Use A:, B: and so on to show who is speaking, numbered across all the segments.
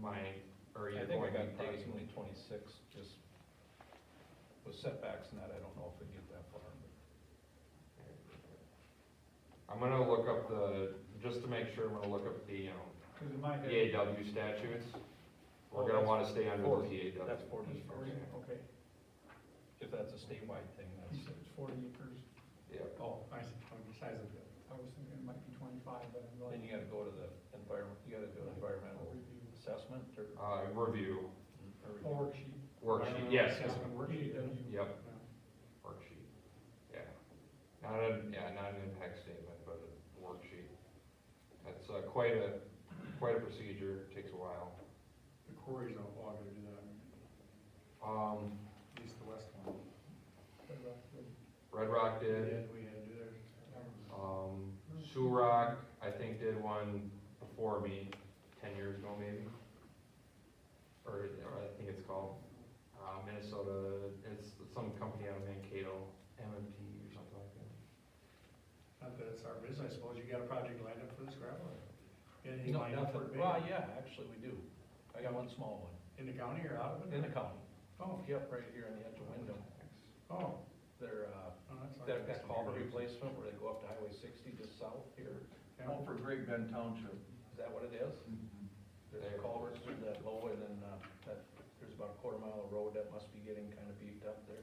A: my, or
B: I
A: either
B: think I
A: one
B: got
A: would probably.
B: approximately twenty-six, just with setbacks and that, I don't know if we get that far. but-
A: I'm gonna look up the, just to make sure, I'm gonna look up the, um,
C: Cause in my head,
A: EAW statutes.
B: Oh,
A: We're gonna
B: that's
A: wanna stay under
B: forty.
A: the EAW.
B: That's forty
C: it's forty,
B: acres.
C: okay,
B: If that's a statewide thing,
C: you
B: that's,
C: said it's forty acres,
A: Yeah,
D: Oh, I see, on the size of it.
C: I was thinking it might be twenty-five, but I'm
B: then
C: like.
B: you gotta go to the environment, you gotta do an
C: I'll
B: environmental
C: review
B: assessment or.
A: uh, review,
B: or
C: the
B: review.
C: Or she,
A: worksheet, yes,
D: That's
A: yes,
D: what
C: worksheet,
D: worksheet,
C: then you-
A: yep,
D: yeah.
A: worksheet, yeah. Not a, yeah, not an impact statement, but a worksheet. That's, uh, quite a, quite a procedure, takes a while.
D: The quarries don't all gonna do that,
A: Um,
D: at least the west one.
C: but, uh, the-
A: Red Rock did,
D: Yeah, we had to do theirs.
B: Uh,
A: Um, Rock, I think, did one before me, ten years ago maybe. Or, or I think it's called, uh, Minnesota, it's some company out of Mankato, MMP or something like that.
D: Not that it's our business, I suppose you got a project lined up for this gravel? Anything
B: No,
D: lined up for
B: nothing,
D: bid?
B: well, yeah, actually, we do. I got one small one,
D: In the county or out of it?
B: in the county,
D: Oh,
B: yep, right here on the edge of Wyndham.
D: oh,
B: They're, uh,
D: oh, that's. all
B: that,
D: right.
B: that culvert replacement where they go up to Highway sixty just south here,
D: Yeah.
E: All for Great Bend Township. Mm-hmm.
B: is that what it is? There's a culvert through that low and then, uh, that, there's about a quarter mile of road that must be getting kinda beefed up there.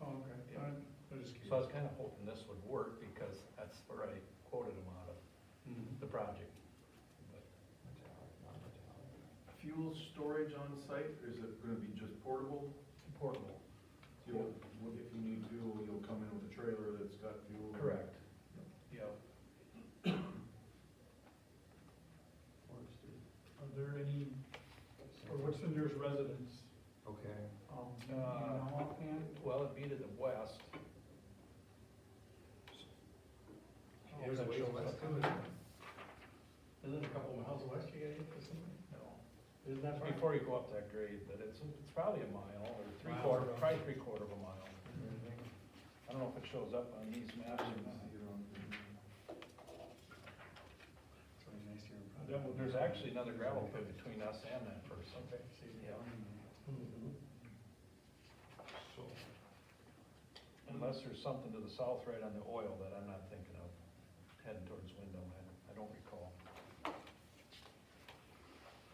D: Oh, okay,
B: Yeah.
D: I, I just
B: So I
D: curious.
B: was kinda hoping this would work because that's where I quoted them out of,
D: Mhm.
B: the project.
E: Fuel storage on site, is it gonna be just portable?
B: Portable.
E: You'll, if you need fuel, you'll come in with a trailer that's got fuel.
B: Correct. Yeah,
C: Are there any, or what's the nearest residence,
A: Okay,
C: um, do you know
B: Uh,
C: offhand?
B: well, it'd be to the west.
C: Oh,
B: Here's a ways west.
D: Isn't it a couple miles west you gotta get to somewhere?
B: No.
D: Isn't that
B: That's
D: far?
B: before you go up that grade, but it's, it's probably a mile or three
D: Miles
B: quarter,
D: around.
B: probably three quarter of a mile. I don't know if it shows up on these maps or not.
D: It's really nice here. in
B: There- well, There's actually another gravel pit between us and that person.
D: Okay, so you-
B: Yeah.
D: Mhm.
A: so,
B: Unless there's something to the south right on the oil that I'm not thinking of, heading towards Wyndham, I, I don't recall. Uh,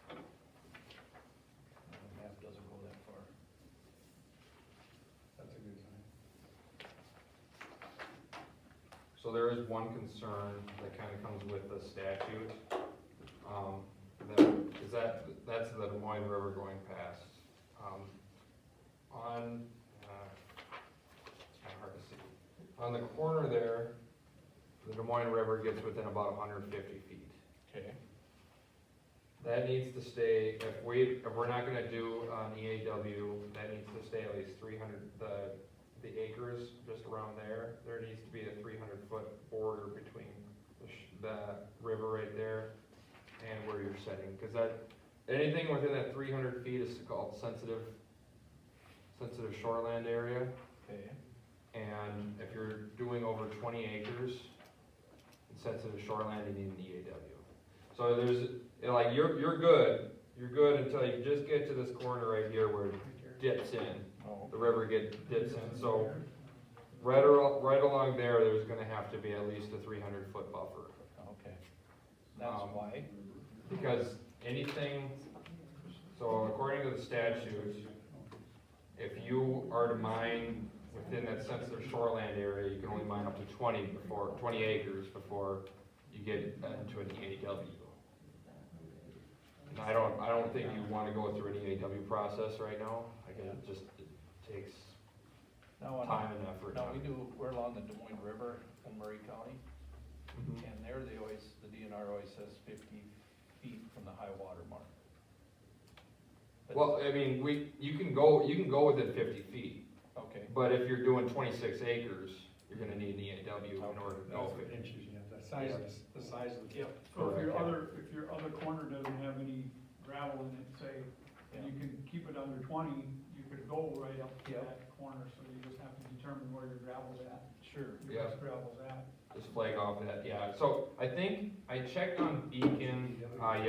B: The map doesn't go that far.
D: That's a good sign.
A: so there is one concern that kinda comes with the statute. Um, that, is that, that's the Des Moines River going past. Um, on, uh, it's kinda hard to see. On the corner there, the Des Moines River gets within about hundred and fifty feet.
B: Okay.
A: That needs to stay, if we, if we're not gonna do an EAW, that needs to stay at least three hundred, the, the acres just around there. There needs to be a three hundred foot border between the, sh- the river right there and where you're setting, cause that, anything within that three hundred feet is called sensitive, sensitive shoreland area.
B: Okay.
A: And if you're doing over twenty acres, in sensitive shoreline, you need an EAW. E So there's, you know, like, you're, you're good, you're good until you just get to this corner right here where it
D: Right there.
A: dips in,
B: Oh,
A: the river get, dips in, so right, al- right along there, there's gonna have to be at least a three hundred foot buffer.
B: okay. That's
A: Um,
B: why.
A: Because anything, so according to the statute, if you are to mine within that sensitive shoreland area, you can only mine up to twenty before, twenty acres before you get into an EAW. And I don't, I don't think you wanna go through an EAW process right now, I guess it just it takes
B: Now, on-
A: time and effort.
B: now we do, we're along the Des Moines River in Murray County,
A: Mhm.
B: and there they always, the DNR always says fifty feet from the high water mark. But-
A: Well, I mean, we, you can go, you can go within fifty feet,
B: Okay,
A: but if you're doing twenty-six acres, you're gonna need an EAW in order to
D: That's
A: go
D: what
A: fifty.
D: inches, yeah, the size, of this- the size of the.
B: Yep.
C: So if
A: Correct,
C: your
A: yeah.
C: other, if your other corner doesn't have any gravel in it, say, and
B: yeah,
C: you can keep it under twenty, you could go right up to
B: Yeah.
C: that corner, so you just have to determine where your gravel's at,
B: sure.
C: your
A: Yeah.
C: best gravel's at.
A: Just flag off that, yeah, so I think I checked on Beacon, uh,